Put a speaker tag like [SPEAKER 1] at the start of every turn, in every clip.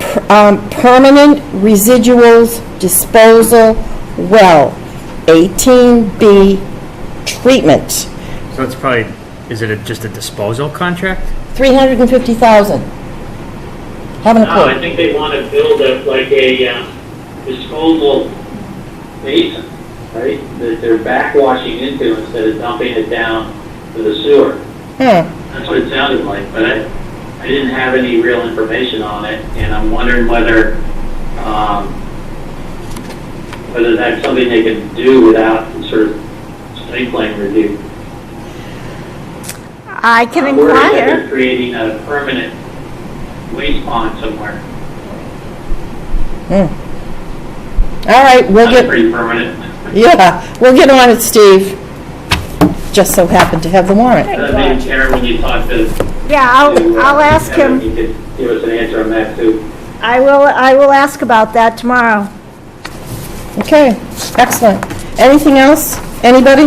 [SPEAKER 1] per- um, permanent residuals disposal well, 18B treatment,
[SPEAKER 2] So it's probably, is it a- just a disposal contract?
[SPEAKER 1] 350,000. Haven't a
[SPEAKER 3] No, I
[SPEAKER 1] clue.
[SPEAKER 3] think they want to build it like a um, disposal basin, right? That they're backwashing into instead of dumping it down to the sewer.
[SPEAKER 1] Hmm,
[SPEAKER 3] That's what it sounded like, but I, I didn't have any real information on it, and I'm wondering whether, um, whether that's something they can do without sort of site plan review.
[SPEAKER 4] I can
[SPEAKER 3] I'm worried that
[SPEAKER 4] inquire.
[SPEAKER 3] They're creating a permanent waste pond somewhere.
[SPEAKER 1] All right, we'll
[SPEAKER 3] That's
[SPEAKER 1] get,
[SPEAKER 3] pretty permanent.
[SPEAKER 1] yeah, we'll get on it, Steve. Just so happened to have the warrant.
[SPEAKER 3] Uh, Maybe Karen, when you talk to.
[SPEAKER 4] Yeah, I'll,
[SPEAKER 3] to, uh,
[SPEAKER 4] I'll ask
[SPEAKER 3] Kevin,
[SPEAKER 4] him.
[SPEAKER 3] You could give us an answer on that too.
[SPEAKER 4] I will, I will ask about that tomorrow.
[SPEAKER 1] Okay, excellent. Anything else? Anybody?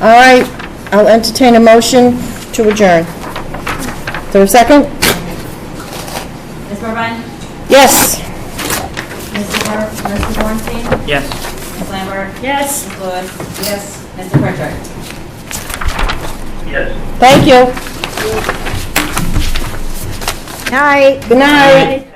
[SPEAKER 1] All right, I'll entertain a motion to adjourn. Is there a second?
[SPEAKER 5] Ms. Burbine?
[SPEAKER 1] Yes.
[SPEAKER 5] Mr. Bor, Mr. Bornstein?
[SPEAKER 2] Yes.
[SPEAKER 5] Ms. Lambert?
[SPEAKER 4] Yes.
[SPEAKER 5] Ms. Lewis? Yes. Mr. Pritchard?
[SPEAKER 3] Yes.
[SPEAKER 1] Thank you.
[SPEAKER 4] Night.
[SPEAKER 1] Good night.
[SPEAKER 4] Night.